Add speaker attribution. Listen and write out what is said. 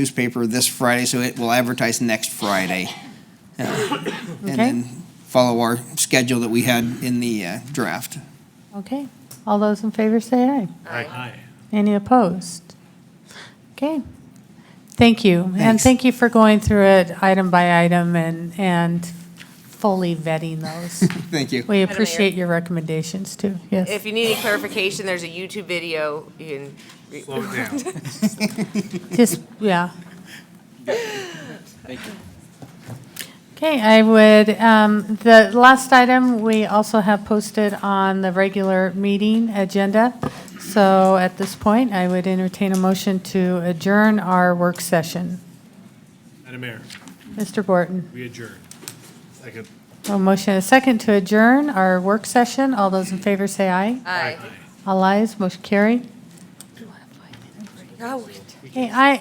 Speaker 1: newspaper this Friday, so it will advertise next Friday. Uh,
Speaker 2: Okay.
Speaker 1: And then follow our schedule that we had in the uh, draft.
Speaker 2: Okay, all those in favor say aye. Any opposed? Okay, thank you. And
Speaker 1: Thanks.
Speaker 2: thank you for going through it item by item and, and fully vetting those.
Speaker 1: Thank you.
Speaker 2: We appreciate your recommendations too, yes.
Speaker 3: If you need any clarification, there's a YouTube video you can. re-
Speaker 4: Slow it down.
Speaker 2: Just, yeah. Okay, I would, um, the last item, we also have posted on the regular meeting agenda. So at this point, I would entertain a motion to adjourn our work session.
Speaker 4: Madam Mayor,
Speaker 2: Mr. Borton,
Speaker 4: we adjourn. Second.
Speaker 2: a motion and a second to adjourn our work session. All those in favor say aye.
Speaker 3: Aye.
Speaker 2: All ayes, motion carried.
Speaker 3: Oh,
Speaker 2: Okay, I,